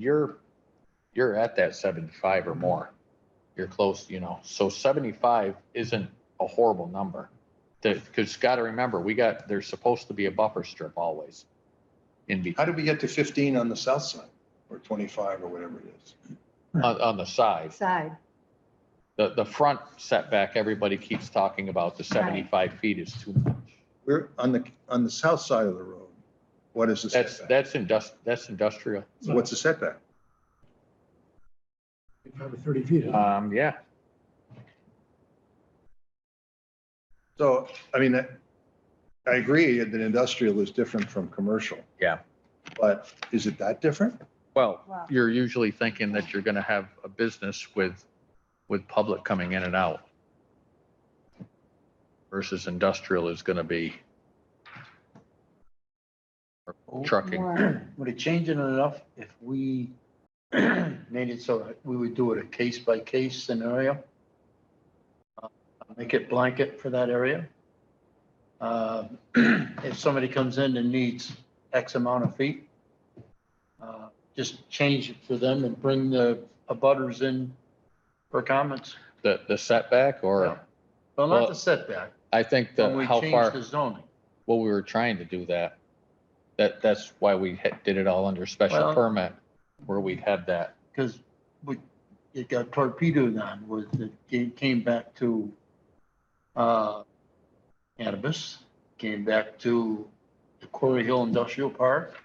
you're, you're at that seventy-five or more. You're close, you know, so seventy-five isn't a horrible number. That, because gotta remember, we got, there's supposed to be a buffer strip always in between. How did we get to fifteen on the south side or twenty-five or whatever it is? on, on the side. side. The, the front setback, everybody keeps talking about the 75 feet is too much. We're on the, on the south side of the road. What is the That's, setback? that's indust, that's industrial. So What's the setback? Probably thirty feet. isn't it? Um, yeah, So, I mean, I I agree that industrial is different from commercial. Yeah. But is it that different? well, Wow. you're usually thinking that you're gonna have a business with, with public coming in and out. Versus industrial is gonna be trucking. More. Would it change it enough if we made it so that we would do it a case by case scenario? Uh, Make it blanket for that area? Uh, If somebody comes in and needs X amount of feet, uh, just change it for them and bring the abutters in for comments. The, the setback Yeah. or, Well, not Well, the setback, I think when the, we how change far, the zoning. well, we were trying to do that. That, that's why we had- did it all under special Well- permit, where we'd have that. because we, it got torpedoed on was it came- came back to uh, cannabis, came back to the Quarry Hill Industrial Park,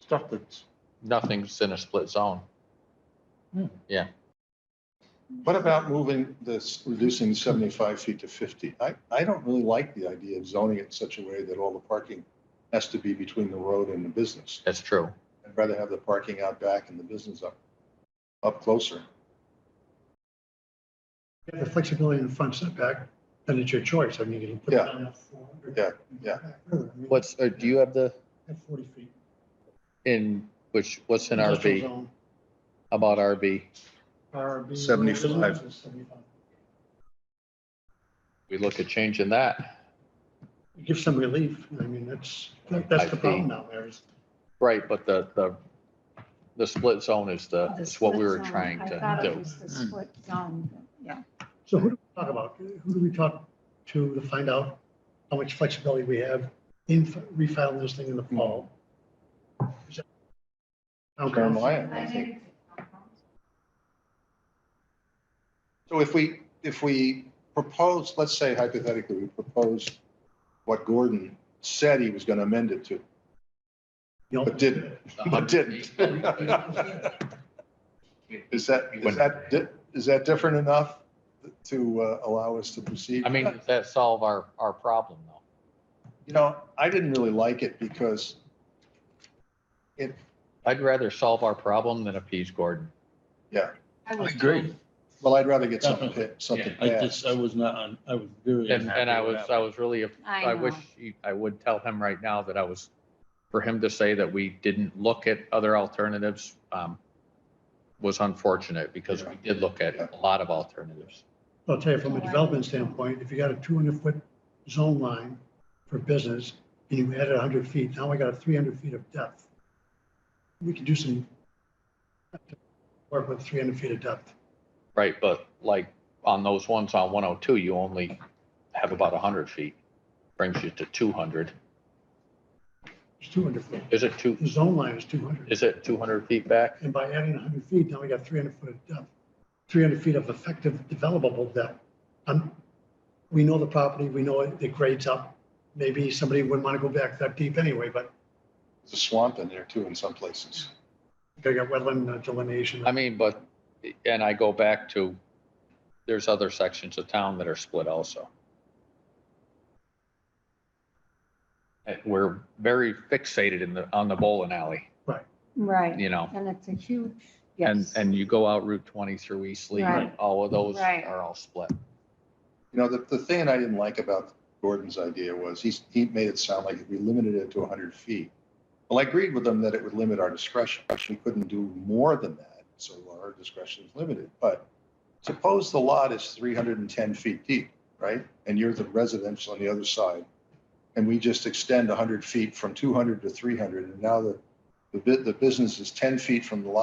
stuff that's, nothing's in a split zone. What about moving this, reducing seventy-five feet to fifty? I, I don't really like the idea of zoning it in such a way that all the parking has to be between the road and the business. That's true. I'd rather have the parking out back and the business up, up closer. You have The flexibility in the front setback, then it's your choice. I mean, you can put it Yeah. down at four hundred. Yeah, yeah. What's, uh, do you have the, At forty feet. in, which, what's in Industrial RV, zone, about RV? RB. 75. is 75. We look at changing that. Give some relief. I mean, that's, that's the problem now, there is. Right, but the, the, the split zone is the, Oh, is what we were trying I thought to it do. was the split zone, yeah. So who do we talk about? Who do we talk to to find out how much flexibility we have in refiling this thing in the fall? Is that- Okay. Jeremiah, I think. So if we, if we propose, let's say hypothetically, we propose what Gordon said he was going to amend it to, but didn't, but didn't. Is that, is that, di- is that different enough to uh, allow us to proceed? I mean, does that solve our, our problem though? You know, I didn't really like it because it, I'd rather solve our problem than appease Gordon. I Oh, was- well, I'd rather get something, pa- something I just, passed. I was not, on- I was very And, unhappy and I was, with I that. was really, I I know. wish he- I would tell him right now that I was, for him to say that we didn't look at other alternatives um, was unfortunate because we did look at a lot of alternatives. I'll tell you, from a development standpoint, if you got a two hundred foot zone line for business and you added hundred feet, now we got three hundred feet of depth. We can do some work with three hundred feet of depth. Right, but like on those ones on one oh two, you only have about hundred feet, brings you to two hundred. It's two hundred foot. Is it two, The zone line is two hundred. is it two hundred feet back? And by adding hundred feet, now we got three hundred foot of depth, three hundred feet of effective developable depth. Um, we know the property, we know it, it grades up. Maybe somebody wouldn't want to go back that deep anyway, but There's a swamp in there too in some places. they got wetland uh, delineation. I mean, but, and I go back to, there's other sections of town that are split also. And We're very fixated in the, on the bowling alley, Right, you know, and it's a huge, and, yes. and you go out Route twenty through East Lee, Right. all of those Right. are all split. You know, the, the thing I didn't like about Gordon's idea was he's, he made it sound like if we limited it to hundred feet. Well, I agreed with him that it would limit our discretion. We couldn't do more than that, so our discretion is limited. But suppose the lot is three hundred and ten feet deep, right? And you're the residential on the other side. And we just extend hundred feet from two hundred to three hundred, and now the, The bu- the business is ten feet from the lot